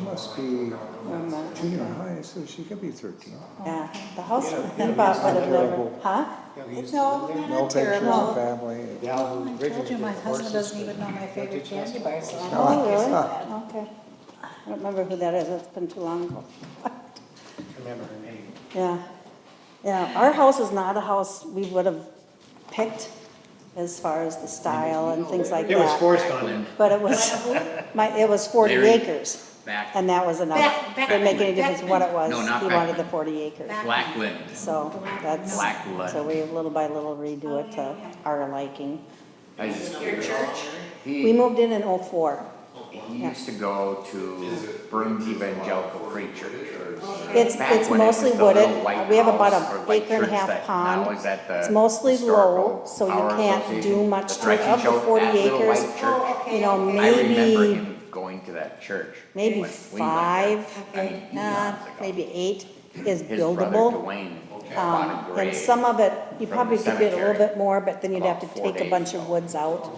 must be One month. junior high, so she could be thirteen. Yeah, the house, Yeah, I thought it's would not have never, terrible. huh? Yeah, he's- It's no, they're No not pictures of terrible. family. Gal I who told you, originally my did the husband horses doesn't even know my favorite candy bar, so I'm No, Oh, not really? using that. Okay. I don't remember who that is, it's been too long ago. didn't Remember her name. Yeah, yeah, our house is not a house we would have picked as far as the style and things like It was that. forced on him. But it was, my, it was forty Larry. acres, back and that was enough. Back- back- Didn't make any difference what it was, No, not he wanted backman. the forty acres. Back- Blackwood. So that's, Blackwood. so we little by little redo it to our liking. I just- We He, moved in oh in oh-four. he used to go to Burns Evangelical Free Church. It's, Back it's when it was mostly the wooded, little white we have about house or a white acre and a church half that pond. now is at the It's mostly low, Historical so Power you can't do Association, much the to it, direction of the showed forty that little acres, Oh, white church. you know, I remember maybe, him going to that church. maybe when we went five, there. I mean, nah, eons ago. Uh, maybe eight is His brother buildable. Dwayne bought a Um, and grave some of it, you from probably the could get a little cemetery bit more, but then you'd have about to four take a days bunch of ago. woods out,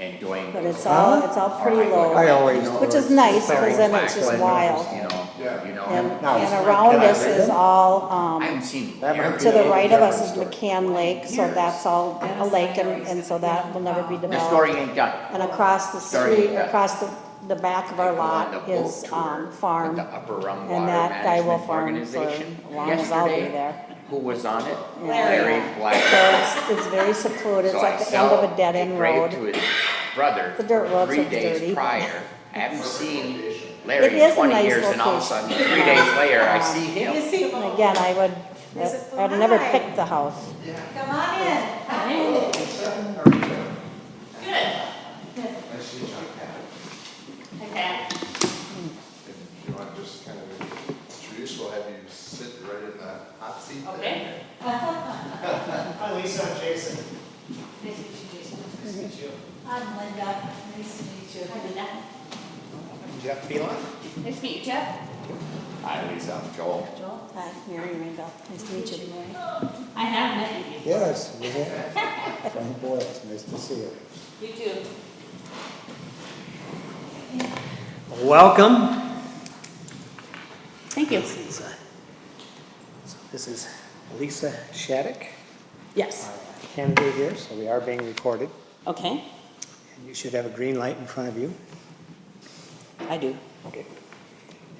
and Dwayne. but goes, it's all, Huh? it's all pretty low. I always. Which is nice, Sorry. cause then it's just Blackwood, wild. You know, you know. And, him. No, it's and not around that us is either. all, I um, haven't seen. That might him. be to the right of us is Different McCann Lake, so Years. that's all a lake and, and so that will never be The story developed. ain't done. And across the Sorry, street, yeah. across the, the back of our lot is, um, farm. And that guy will farm for as long as I'll be there. Who was on it? Larry. Larry Black. So it's, it's very secluded, it's So I like the end of sell a dead end road. Grave to his brother. The dirt road, so Three it's dirty. days prior. I haven't seen It Larry is in a twenty nice years and all of a sudden, location. Um, three days later, I see You him. see, And come Again, I would, Is it I'd never alive? pick the house. on in. Hi. uh, Good. Okay. If you want to just kind of introduce, we'll have you sit right in the hot seat. there. Okay. Hi Lisa, I'm Jason. Nice to meet you. Nice to meet you. I'm Linda. Nice to meet you. Hi, Linda. I'm Jeff Phelan. Nice to meet you, Jeff. Hi, Lisa, I'm Joel. Joel. Hi, Mary Rainbow, nice to meet you, Mary. I have met you before. Yes, we have. Frank Boyle, it's nice to see you. You too. Welcome. Thank you. This is, uh, so This is Lisa Shattuck, Yes, candidate here, so we are being recorded. okay, And You should have a green light in front of you. I do. Okay.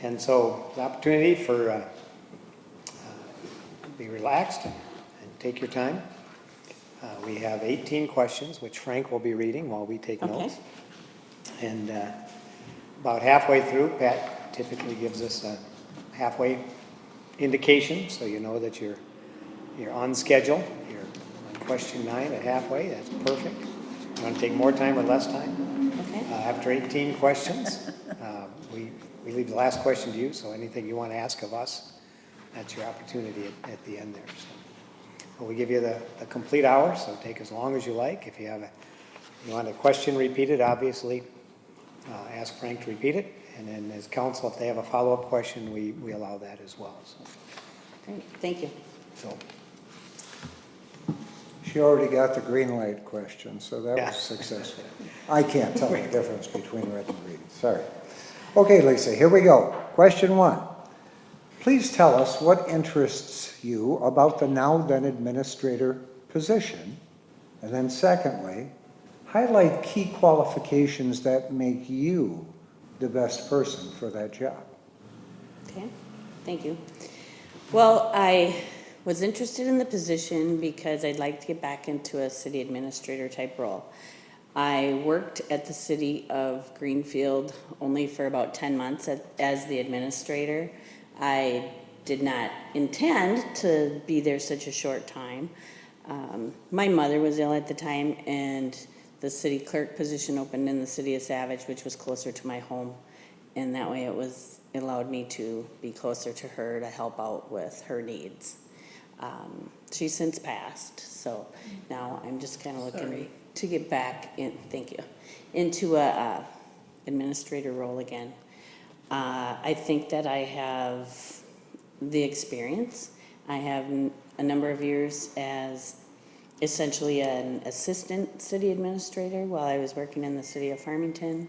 And so the opportunity for, uh, uh, be relaxed and take your time. Uh, We have 18 questions, which Frank will be reading while we take Okay. notes. And uh, about halfway through, Pat typically gives us a halfway indication, so you know that you're, you're on schedule. You're on question nine at halfway, that's perfect. You want to take more time or less time? Okay. Uh, After 18 questions, uh, we, we leave the last question to you, so anything you want to ask of us, that's your opportunity at, at the end there. So But we give you the, the complete hour, so take as long as you like. If you have a, you want a question repeated, obviously, uh, ask Frank to repeat it. And then as council, if they have a follow-up question, we, we allow that as well, so. Great, Thank you. So, She already got the green light question, so that Yeah. was successful. I can't tell the difference between red and green, sorry. Okay, Lisa, here we go. Question one. Please tell us what interests you about the now-then administrator position? And then secondly, highlight key qualifications that make you the best person for that job. Okay, thank you. Well, I was interested in the position because I'd like to get back into a city administrator type role. I worked at the city of Greenfield only for about ten months as, as the administrator. I did not intend to be there such a short time. Um, my mother was ill at the time and the city clerk position opened in the city of Savage, which was closer to my home. And that way it was, it allowed me to be closer to her to help out with her needs. Um, she's since passed, so now I'm just kind of looking to get back in, thank you, into a uh, administrator role again. Uh, I think that I have the experience. I have n- a number of years as essentially an assistant city administrator while I was working in the city of Farmington.